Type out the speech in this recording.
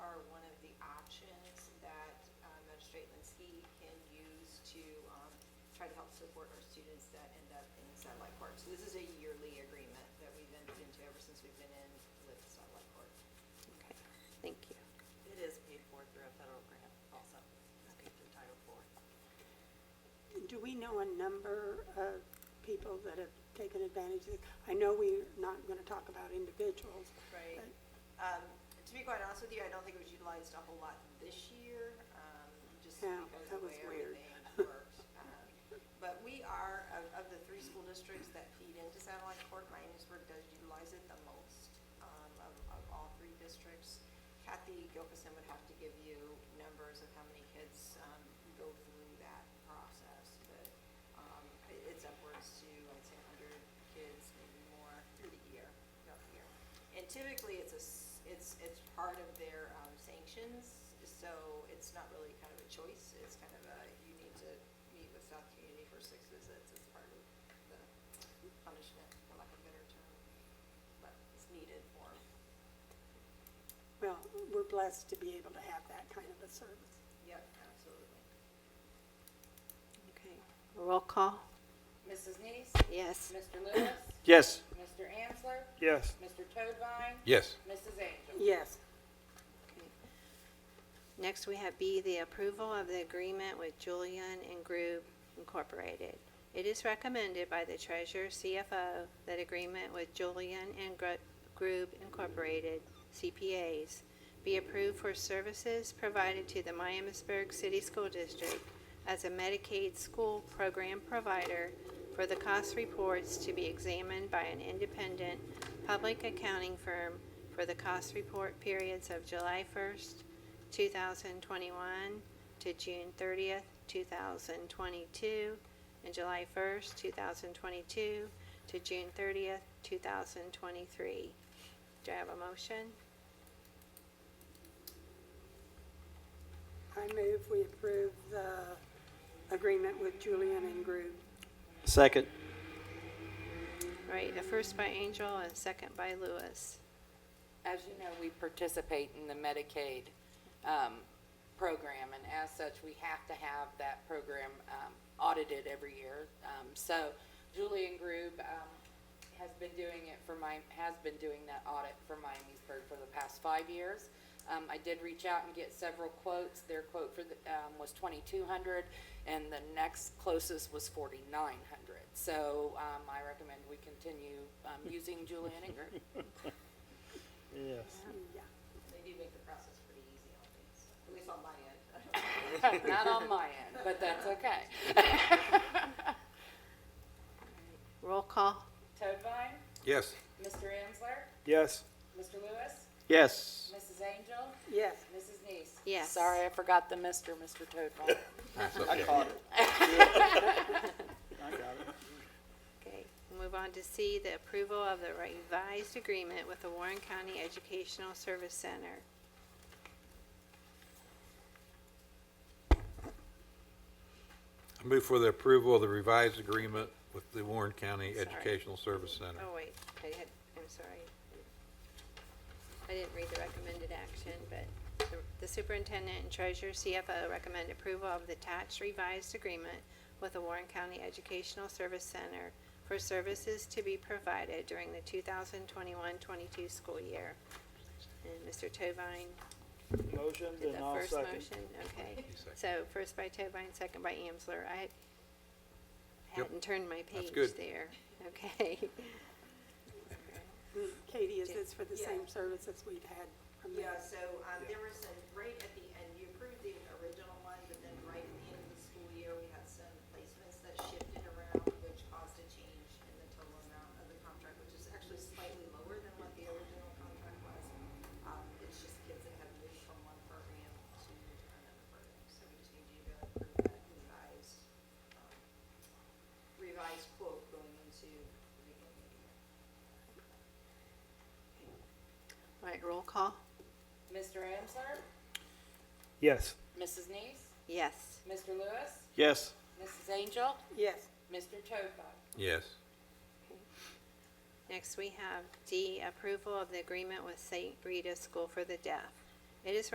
um, try to help support our students that end up in satellite court. So this is a yearly agreement that we've entered into ever since we've been in with satellite court. Okay, thank you. It is paid for through a federal grant also, it's paid through Title IV. Do we know a number of people that have taken advantage of it? I know we're not going to talk about individuals. Right. but- Um, to be quite honest with you, I don't think it was utilized a whole lot this year, um, just Yeah, because that of the was way weird. everything worked. Um, But we are, of, of the three school districts that feed into satellite court, Miamisburg does utilize it the most, um, of, of all three districts. Kathy Gilkison would have to give you numbers of how many kids, um, go through that process, but, um, it- it's upwards to, I'd say, hundred kids, maybe more, through the year, throughout the year. And typically, it's a, s- it's, it's part of their um, sanctions, so it's not really kind of a choice. It's kind of a, you need to meet with South Community for six visits. It's part of the punishment, for lack of a better term. But it's needed for, Well, we're blessed to be able to have that kind of a service. yep, absolutely. Okay, roll call? Mrs. Neese? Yes. Mr. Lewis? Yes. Mr. Ansler? Yes. Mr. Toadvine? Yes. Mrs. Angel? Yes, Okay. Next, we have B, the approval of the agreement with Julian and Group Incorporated. It is recommended by the treasurer CFO that agreement with Julian and Gro- Group Incorporated CPAs be approved for services provided to the Miamisburg City School District as a Medicaid school program provider for the cost reports to be examined by an independent public accounting firm for the cost report periods of July 1st, 2021 to June 30th, 2022, and July 1st, 2022 to June 30th, 2023. Do I have a motion? I move we approve the agreement with Julian and Groove. Second. All Right, a first by Angel and a second by Lewis. As you know, we participate in the Medicaid um, program, and as such, we have to have that program um, audited every year. Um, So Julian Grube um, has been doing it for my, has been doing that audit for Miamisburg for the past five years. Um, I did reach out and get several quotes. Their quote for the, um, was twenty-two hundred, and the next closest was forty-nine hundred. So um, I recommend we continue um, using Julian and Grube. Yes. Yeah. They do make the process pretty easy on these, at least on my end. Not on my end, but that's okay. Roll call? Toadvine, Yes. Mr. Ansler, Yes. Mr. Lewis, Yes. Mrs. Angel, Yes, Mrs. Neese. Yes. Sorry, I forgot the Mr. Mr. Toadvine. I caught it. Okay, move on to C, the approval of the revised agreement with the Warren County Educational Service Center. I move for the approval of the revised agreement with the Warren County Sorry. Educational Service Center. Oh, wait, I had, I'm sorry. I didn't read the recommended action, but the- the superintendent and treasurer CFO recommend approval of the attached revised agreement with the Warren County Educational Service Center for services to be provided during the 2021-22 school year. And Mr. Tovine Motion, did the then I'll first second. motion, okay. You second. So first by Tovine, second by Amsler. I Yep. hadn't turned my That's page good. there. Okay. Mm, Katie, is this for the Yeah. same services we've had from Yeah, the so um, there was some, right at the end, you approved the original one, but then right at the end of the school year, we had some placements that shifted around, which caused a change in the total amount of the contract, which is actually slightly lower than what the original contract was. Um, It's just kids that have moved from one program to another program, so we just need you to approve that revised, um, revised quote going into the beginning of the year. All right, roll call? Mr. Ansler, Yes. Mrs. Neese, Yes. Mr. Lewis, Yes. Mrs. Angel, Yes, Mr. Toadvine. Yes. Next, we have D, approval of the agreement with St. Rita School for the Deaf. It is